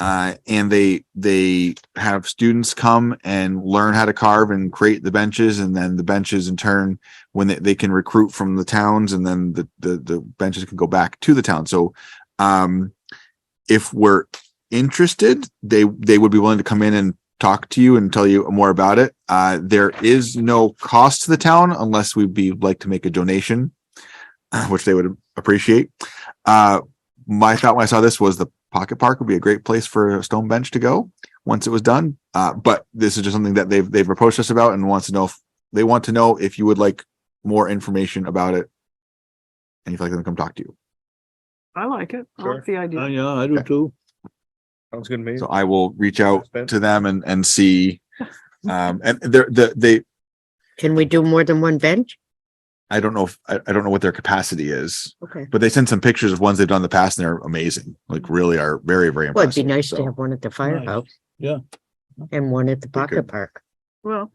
uh, and they they have students come and learn how to carve and create the benches, and then the benches in turn, when they, they can recruit from the towns, and then the, the the benches can go back to the town. So, um, if we're interested, they they would be willing to come in and talk to you and tell you more about it. Uh, there is no cost to the town unless we'd be like to make a donation, uh, which they would appreciate. Uh, my thought when I saw this was the pocket park would be a great place for a stone bench to go once it was done. Uh, but this is just something that they've they've approached us about and wants to know if they want to know if you would like more information about it, and if you'd like them to come talk to you. I like it. I like the Oh, idea. yeah, I do Okay. too. Sounds good to me. So I will reach out to them and and see. Um, and they're the they Can we do more than one bench? I don't know if I, I don't know what their capacity is, Okay. Mm-hmm. but they send some pictures of ones they've done in the past and they're amazing. Like really are very, very Well, it'd be impressive. nice to So, have one at the firehouse. yeah. And one at the good. pocket park. Well,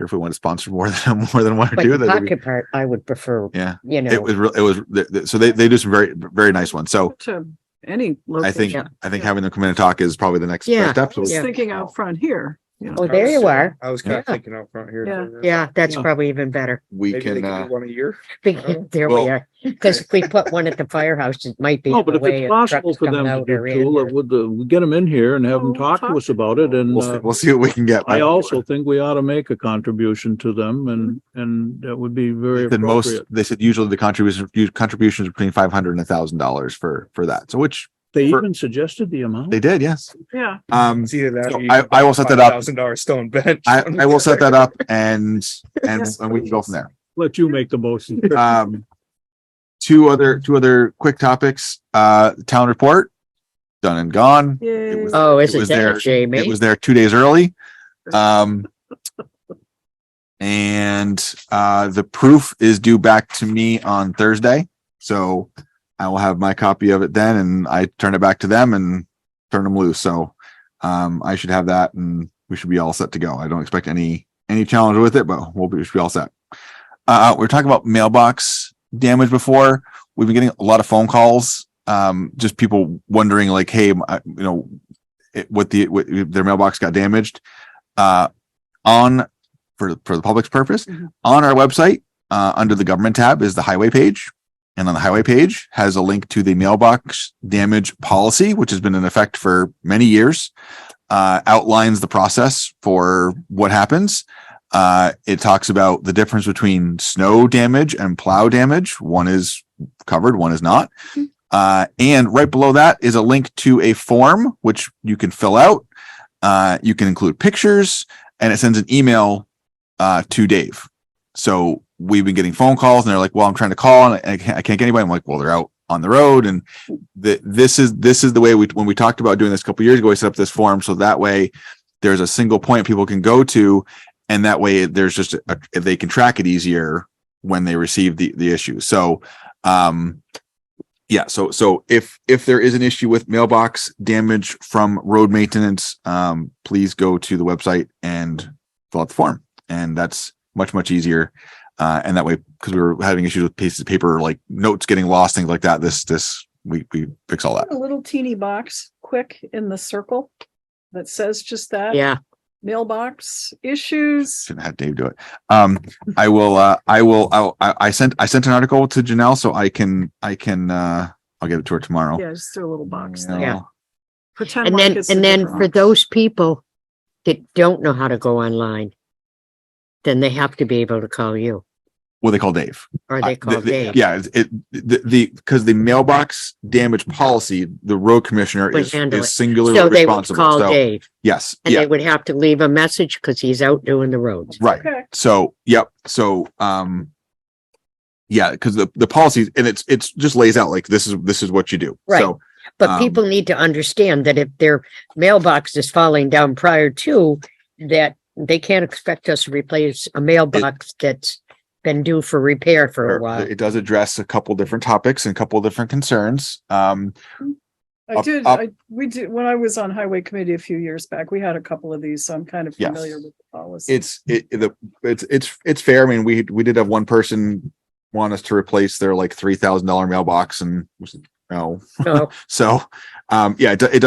If we want to sponsor more than more than one or But two, the that'd be, pocket park, I would prefer, yeah, you it know, was real, it was, th- th- so they, they do some very, very nice ones. So to any I think, location. Yeah. I think having them come in and talk is probably the next Yeah. best step. I So was we- Yeah. thinking out front here. you know. oh, there you are. I was kind Yeah. of thinking out front here. Yeah. Yeah, that's Yeah. probably even better. we Maybe they can, could do uh, one a year. Because there Well- we are. Because if we put one at the firehouse, it might be. No, but the if way it's of possible trucks for coming them to out do or in too, or- uh, would, uh, we get them in here and have them Oh, talk to talk us about it and, we'll, see- uh, we'll see what we can get. I also think we ought to make a contribution to them and, Mm-hmm. and that would be very The most, appropriate. they said usually the contribution, contributions between 500 and a thousand dollars for, for that. So which They for- even suggested the amount. they did. Yes. Yeah, Um, It's either that. So I- I will set that up. Thousand dollar stone bench. I, I will set that up and, and, and we can go from there. Let you make the motion. Um, two other, two other quick topics, uh, town report, done and gone. yay. was- Oh, it isn't was that there- a shame? It eh? was there two days early. Um, and, uh, the proof is due back to me on Thursday. So I will have my copy of it then and I turn it back to them and turn them loose. So, um, I should have that and we should be all set to go. I don't expect any, any challenge with it, but we'll be, we should be all set. Uh, we we're talking about mailbox damage before. We've been getting a lot of phone calls. Um, just people wondering like, Hey, I- you know, it, what the what, their mailbox got damaged uh on for for the public's purpose Mhm. on our website uh under the government tab is the highway page and on the highway page has a link to the mailbox damage policy which has been in effect for many years uh outlines the process for what happens uh it talks about the difference between snow damage and plow damage one is covered one is not uh, and right below that is a link to a form which you can fill out. Uh, you can include pictures, and it sends an email uh, to Dave. So we've been getting phone calls, and they're like, "Well, I'm trying to call, and I can't, I can't get anybody." I'm like, "Well, they're out on the road." And th- this is this is the way we when we talked about doing this a couple years ago, we set up this form so that way there's a single point people can go to, and that way there's just a, they can track it easier when they receive the the issue. So. Um, yeah so so if if there is an issue with mailbox damage from road maintenance um please go to the website and fill out the form and that's much much easier uh and that way because we were having issues with pieces of paper like notes getting lost things like that this this we we fix all that A little teeny box, quick in the circle that says just that. Yeah, Mailbox issues. shouldn't have Dave do it. Um, I will, uh, I will, I'll- I, I sent, I sent an article to Janelle, so I can, I can, uh, I'll give it to her tomorrow. Yeah, just throw a little box there. Yeah. Pretend and like then, it's a and then different for box. those people that don't know how to go online, then they have to be able to call you Well, they call Dave. or they I- call the- the- Dave. Yeah, it's- it, the, the, because the mailbox damage policy, the road commissioner Mm-hmm. Would is, handle it. is singularly So they would responsible. call So, Dave yes, and yeah, they would have to leave a message because he's out doing the roads. right. Okay. So, yep. So, um, yeah, because the, the policies and it's, it's just lays out like this is, this is what you do. Right. So, But Um, people need to understand that if their mailbox is falling down prior to that, they can't expect us to replace a mailbox that's been due for repair for a while. Oh, it does address a couple different topics and a couple different concerns. Um, I up- did, up- I, we did, when I was on highway committee a few years back, we had a couple of these, so I'm kind of Yes. familiar with the policy. it's, it, the, it's, it's, it's fair. I mean, we, we did have one person want us to replace their like $3,000 mailbox and, you know, So So, um, yeah, it, do- it